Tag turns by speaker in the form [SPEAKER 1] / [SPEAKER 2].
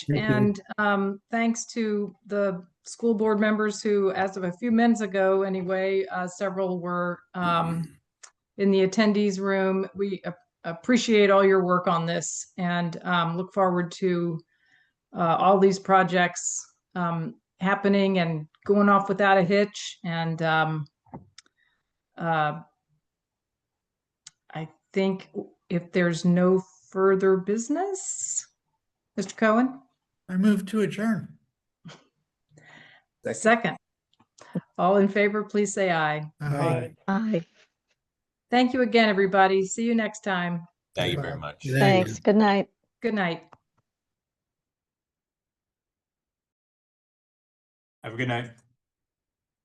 [SPEAKER 1] And um, thanks to the school board members who, as of a few minutes ago anyway, uh, several were um, in the attendees room. We ap- appreciate all your work on this and um, look forward to uh, all these projects um, happening and going off without a hitch. And um, uh, I think if there's no further business, Mr. Cohen?
[SPEAKER 2] I move to adjourn.
[SPEAKER 1] Second. All in favor, please say aye.
[SPEAKER 2] Aye.
[SPEAKER 3] Aye,
[SPEAKER 1] Thank you again, everybody. See you next time.
[SPEAKER 4] Thank you very much.
[SPEAKER 2] Good night.
[SPEAKER 3] thanks. Good night.
[SPEAKER 1] Good night.
[SPEAKER 5] Have a good night.